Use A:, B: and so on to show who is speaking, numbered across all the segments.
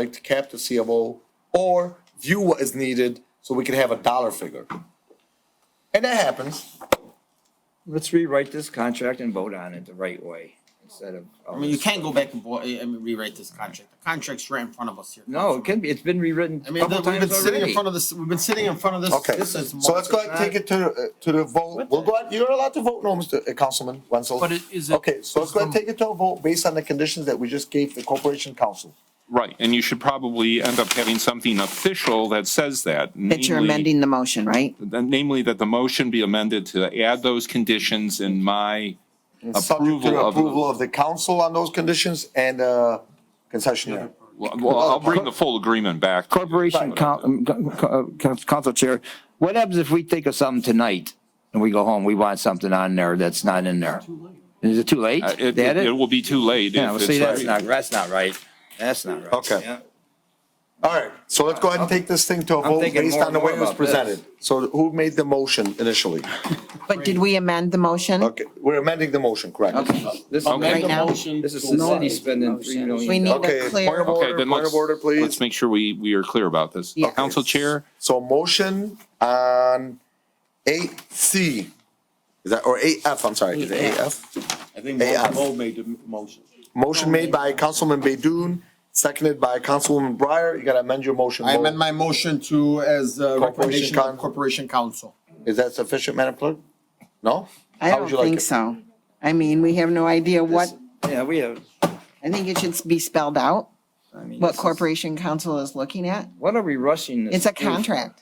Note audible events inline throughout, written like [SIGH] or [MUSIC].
A: like to cap the CFO or view what is needed so we can have a dollar figure. And that happens.
B: Let's rewrite this contract and vote on it the right way instead of. all
C: I mean, you
B: this-
C: can't go back and boy, I mean, rewrite this contract. The contract's right in front of us here.
B: No, it can be, it's been rewritten
C: I mean,
B: couple
C: we've been
B: times
C: sitting in
B: already.
C: front of this, we've been sitting in front of this.
A: Okay,
C: This is.
A: so let's go ahead and take it to, uh, to the vote. We'll go ahead, you're allowed to vote no, Mr. uh, Councilman Wenzel.
D: But it- is it-
A: Okay, so let's go ahead and take it to a vote based on the conditions that we just gave the Corporation Council.
E: Right, and you should probably end up having something official that says that.
F: That you're
E: namely-
F: amending the motion, right?
E: that- Namely, that the motion be amended to add those conditions in my
A: Subject to
E: approval
A: the
E: of. the-
A: approval of the council on those conditions and, uh, concessionaire.
E: Well, well, I'll bring the full agreement back. uh,
B: Corporation coun- um, co- co- uh, Council Chair, what happens if we think of something tonight and we go home, we want something on there that's not in there? Is it too late?
E: Uh, It,
B: That
E: it it will be too late.
B: Yeah,
E: if
B: well,
E: it's
B: see, that's
E: like-
B: not, that's not right. That's not right.
A: Okay.
B: Yeah.
A: All right, so let's go ahead and take this thing to a vote
B: thinking
A: based
B: more
A: on the
B: and
A: way it
B: more
A: was
B: about this.
A: presented. So who made the motion initially?
F: But did we amend the motion?
A: Okay, we're amending the motion, correct?
B: This
F: Right
C: Amend the
F: now?
C: motion.
B: This is
C: to
B: the
C: allow-
B: city spending three million.
F: We need
A: Okay,
F: a
A: point
F: clear,
A: of order,
E: Okay, then
A: point of
E: let's,
A: order, please.
E: let's make sure we, we are clear about this.
F: Yes.
E: Council Chair,
A: So motion on eight C, is that, or eight F, I'm sorry, is it eight F?
C: I think
A: Hey, uh,
C: Mo Mo made the m- motion.
A: Motion made by Councilman Baydun, seconded by Councilwoman Breyer. You gotta amend your motion.
C: I
A: Mo.
C: amend my motion to as a recommendation
A: Coun-
C: of Corporation Council.
A: Is that sufficient, Madam Clerk? No? How
F: I don't
A: would you like
F: think
A: it?
F: so. I mean, we have no idea what,
B: Yeah, we have,
F: I think it should be spelled out,
B: I mean.
F: what
B: this is-
F: Corporation Council is looking at.
B: What are we rushing this?
F: It's a
B: through?
F: contract.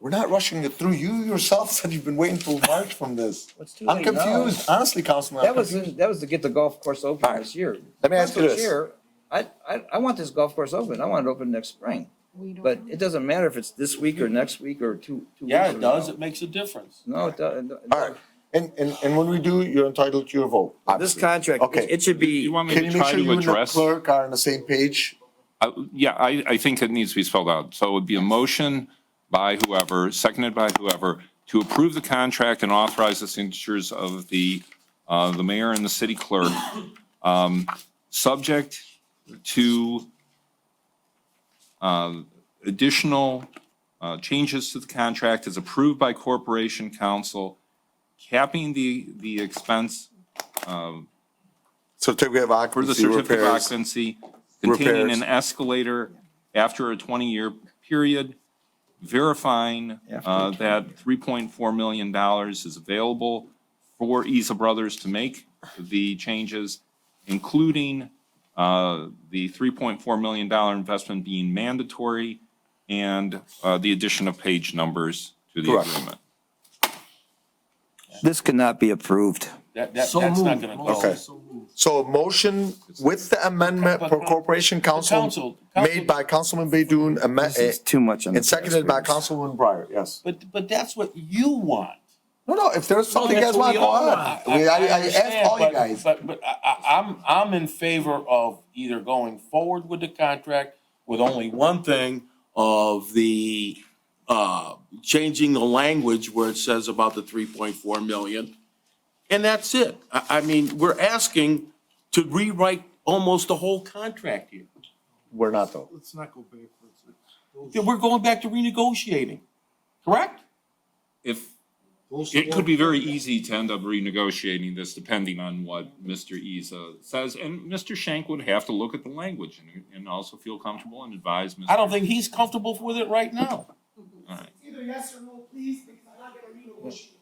A: We're not rushing it through. You yourself [LAUGHS] said you've been waiting till March from this.
B: It's too
A: I'm
B: late now.
A: confused, honestly, Councilman. I'm
B: That was, that was to get the golf course open this year.
A: Let me ask you
B: Council
A: this.
B: Chair, I, I, I want this golf course open. I want it open next spring. But it doesn't matter if it's this week or next week or two, two weeks. from now.
C: makes a difference.
B: No, it doesn't.
A: All right, and, and, and when we do, you're entitled to your vote.
B: This
A: obviously.
B: contract,
A: Okay.
B: it- it should
E: you
B: be,
E: want me
A: Can
E: to
A: you make
E: try
A: sure you
E: to
A: and the
E: address?
A: clerk are on the same page?
E: Uh, Yeah, I, I think it needs to be spelled out. So it would be a motion by whoever, seconded by whoever, to approve the contract and authorize the signatures of the, uh, the mayor and the city clerk, um, subject to uh, additional uh, changes to the contract as approved by corporation council, capping the, the expense
A: Certificate of
E: for the
A: occupancy
E: certificate of
A: repairs.
E: occupancy containing
A: Repairs.
E: an escalator after a 20-year period, verifying uh, that $3.4 million is available for Isa Brothers to make the changes, including uh, the $3.4 million investment being mandatory and uh, the addition of page numbers to the
A: Correct.
E: agreement.
B: this cannot be approved.
G: That, that, that's
C: So
G: not
C: moved.
G: gonna go.
A: Okay. So a motion with the amendment for Corporation Council
G: Council-
A: made by Councilman Baydun,
B: This is
A: amended,
B: too much on the.
A: and seconded by Councilwoman Breyer, yes.
G: But, but that's what you want.
A: No, no, if there's something you guys want,
G: That's what we
A: go
G: all
A: on.
G: want.
A: We- I, I
G: understand,
A: asked all you
G: but-
A: guys.
G: But, but I, I, I'm, I'm in favor of either going forward with the contract with only one thing of the, uh, changing the language where it says about the three point four million. And that's it. I, I mean, we're asking to rewrite almost the whole contract here.
A: We're not though.
H: Let's not go backwards.
G: Then we're going back to renegotiating, correct?
E: If,
H: Those-
E: It could be very easy to end up renegotiating this depending on what Mr. Isa says. And Mr. Shank would have to look at the language and, and also feel comfortable and advise Mr.
G: I don't think he's comfortable with it right now.
I: Either yes or no, please, because I'm not gonna renegotiate.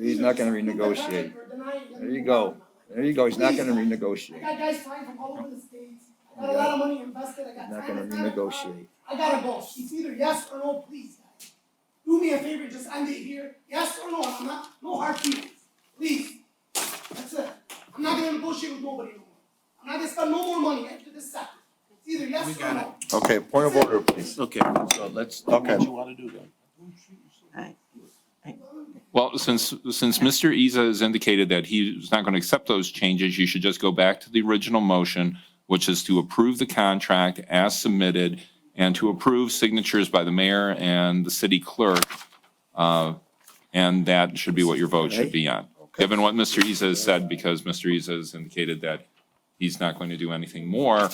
B: He's not gonna
I: Either
B: renegotiate.
I: deny it or deny it, let
B: There
I: me
B: you
I: move
B: go.
I: on.
B: There you go. He's not gonna
I: I
B: renegotiate.
I: got guys flying from all over the states, I got a lot of money invested, I got
B: Not
I: time,
B: gonna
I: I got a car.
B: renegotiate.
I: I gotta go, it's either yes or no, please, guys. Do me a favor, just end it here, yes or no, I'm not, no hard feelings, please. That's it, I'm not gonna negotiate with nobody no more, I'm not gonna spend no more money after this second, it's either yes or no.
A: Okay, point of order, please.
G: Okay, so let's do
A: Okay.
G: what you wanna do then.
E: Well, since, since Mr. Isa has indicated that he's not going to accept those changes, you should just go back to the original motion, which is to approve the contract as submitted and to approve signatures by the mayor and the city clerk. Uh, And that should be what your vote should be on, given what Mr. Isa has said, because Mr. Isa has indicated that he's not going to do anything more